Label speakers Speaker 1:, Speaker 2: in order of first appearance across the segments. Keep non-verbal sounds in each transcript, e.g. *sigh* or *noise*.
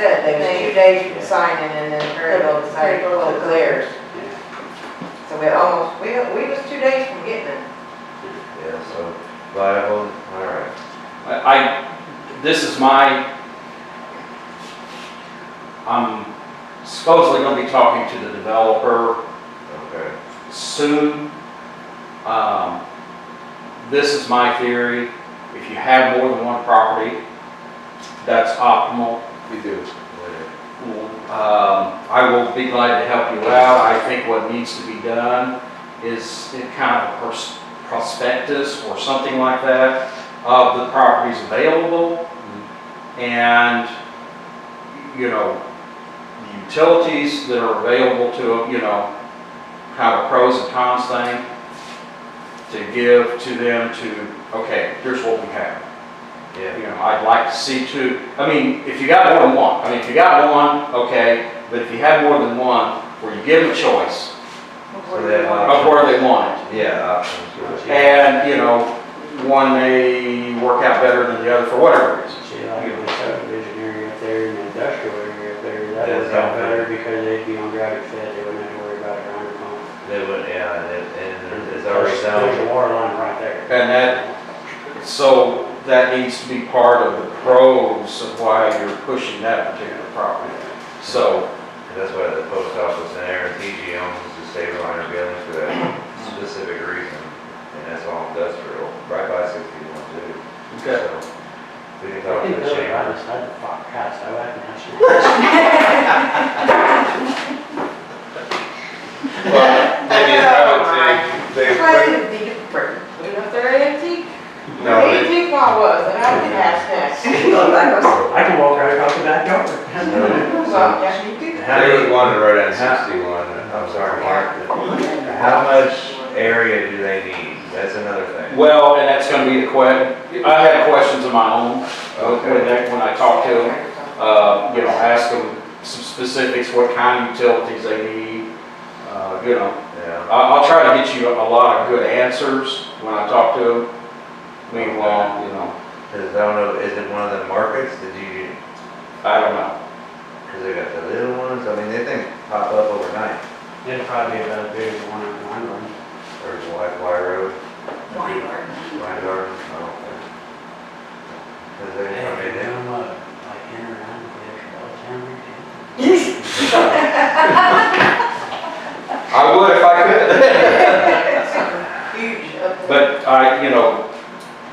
Speaker 1: there's two days for signing and then Perryville decided to close theirs. So we almost, we, we was two days from getting it.
Speaker 2: Yeah, so viable, all right.
Speaker 3: I, I- this is my, I'm supposedly gonna be talking to the developer
Speaker 2: Okay.
Speaker 3: soon. Um, This is my theory, if you have more than one property, that's optimal.
Speaker 2: We do. Later.
Speaker 3: Um, I will be glad to help you out, I think what needs to be done is it kind of a pers- prospectus or something like that of the properties available. and, you know, the utilities that are available to, them, you know, kind of pros and cons thing to give to them to, okay, here's what we have. You
Speaker 2: Yeah,
Speaker 3: know, I'd like to see two, I mean, if you got more than one, I mean, if you got one, okay, but if you have more than one, where you give them a choice
Speaker 4: Oh,
Speaker 3: of where they want it.
Speaker 2: yeah, options.
Speaker 3: And, you know, one may work out better than the other for whatever reason.
Speaker 5: See, like in the subdivision area up there and the industrial area up there, that
Speaker 2: That's
Speaker 5: works out
Speaker 2: not
Speaker 5: better
Speaker 2: bad.
Speaker 5: because they'd be on gravity fed, they wouldn't have to worry about it around the pump.
Speaker 2: They would, yeah, and it- and it's already
Speaker 5: There's there's
Speaker 2: down.
Speaker 5: a water line right there.
Speaker 3: And that- So that needs to be part of the pros of why you're pushing that particular property. So,
Speaker 2: And that's why the post office and Aaron TG owns the state liner building for that specific reason. And that's all industrial, right by sixty-one too.
Speaker 3: okay,
Speaker 2: So We can
Speaker 5: I
Speaker 2: talk to
Speaker 5: think
Speaker 2: the
Speaker 5: those right
Speaker 2: chamber.
Speaker 5: beside the fuck house, I like that.
Speaker 4: Well, maybe it's probably, they,
Speaker 1: Why did the, we know if they're antique?
Speaker 4: no,
Speaker 1: The
Speaker 4: they-
Speaker 1: antique one was, and I did ask that. *laughs* So,
Speaker 5: I can walk right across the back door.
Speaker 1: yeah, you do.
Speaker 2: How do you want to write on
Speaker 3: How-
Speaker 2: sixty-one? I'm sorry, Mark. but How much area do they need? That's another thing.
Speaker 3: well, and that's gonna be the que, I have questions of my own when that, when I talk to them.
Speaker 1: *laughs*
Speaker 3: Uh, you know, ask them some specifics, what kind of utilities they need, uh, you know.
Speaker 2: Yeah.
Speaker 3: I'll, I'll try to get you a lot of good answers when I talk to them. Meanwhile, you know,
Speaker 2: Cause I don't know, is it one of the markets? Did you,
Speaker 3: I don't know.
Speaker 2: cause they got the little ones? I mean, they things pop up overnight.
Speaker 5: It'd probably be about as big as one of mine, one.
Speaker 2: Or the White Wire Road,
Speaker 4: Wine garden.
Speaker 2: Wine Garden, I don't think. Cause they,
Speaker 5: Hey,
Speaker 2: I mean,
Speaker 5: you
Speaker 2: they,
Speaker 5: know, uh, like in or out of the extra all the time,
Speaker 3: I would if I could. *laughs*
Speaker 1: Huge up there.
Speaker 3: But I, you know,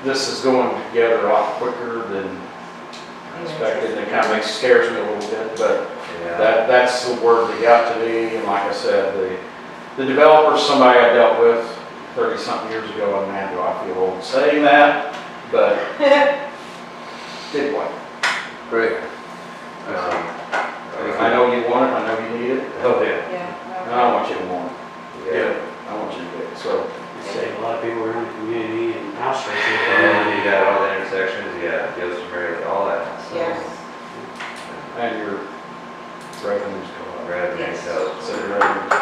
Speaker 3: this is going together a lot quicker than expected, and it kind of makes, scares me a little bit, but
Speaker 2: yeah.
Speaker 3: that, that's the word that got to me, and like I said, the, the developer's somebody I dealt with thirty-something years ago, and man, do I feel old saying that, *laughs* but did what?
Speaker 2: Great.
Speaker 3: I know you want it, I know you need it,
Speaker 2: uh, Oh, yeah.
Speaker 3: and
Speaker 1: Yeah.
Speaker 3: I want you to want it,
Speaker 2: Yeah.
Speaker 3: I want you to get it, so,
Speaker 5: It'd save a lot of people around the community and house rates.
Speaker 2: And you got all the intersections, you got Gilson Road, all that. so-
Speaker 1: Yes.
Speaker 3: and your revenues go up.
Speaker 2: Rather than
Speaker 1: Yes.
Speaker 2: sell,
Speaker 3: So your revenues,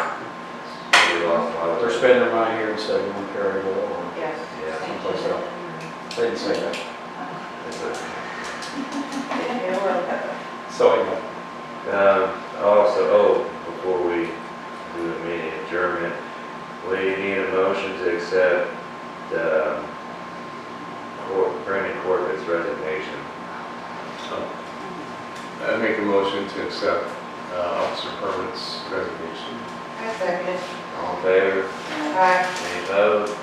Speaker 2: we lost a lot of.
Speaker 3: they're spending their money here instead of going to Perryville or
Speaker 1: Yes.
Speaker 2: Yeah,
Speaker 3: someplace else. They didn't say that.
Speaker 2: It's a-
Speaker 1: Yeah, well,
Speaker 3: So anyway.
Speaker 2: Um, also, oh, before we do the meeting adjournment, we need a motion to accept, um, Cor- Brandon Corbett's resignation.
Speaker 4: I make a motion to accept uh, Officer Herman's resignation.
Speaker 1: I second.
Speaker 2: All in favor?
Speaker 1: Aye.
Speaker 2: Any opposed?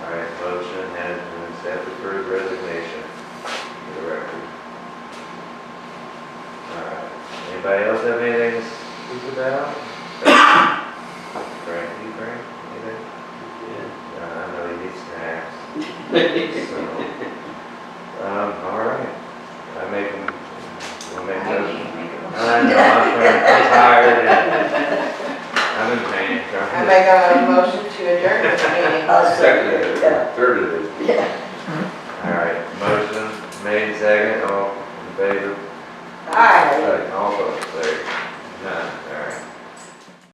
Speaker 2: All right, motion has been accepted for his resignation, for the record. All right, anybody else have anything to speak *coughs* about? Frank, you Frank, anything? Uh, I know you need snacks. *laughs* So, Um, all right, I make, them- we'll make those. I know, I'm trying- I'm tired and I'm in pain.
Speaker 1: I make a motion to adjourn this meeting.
Speaker 2: Second, third of it.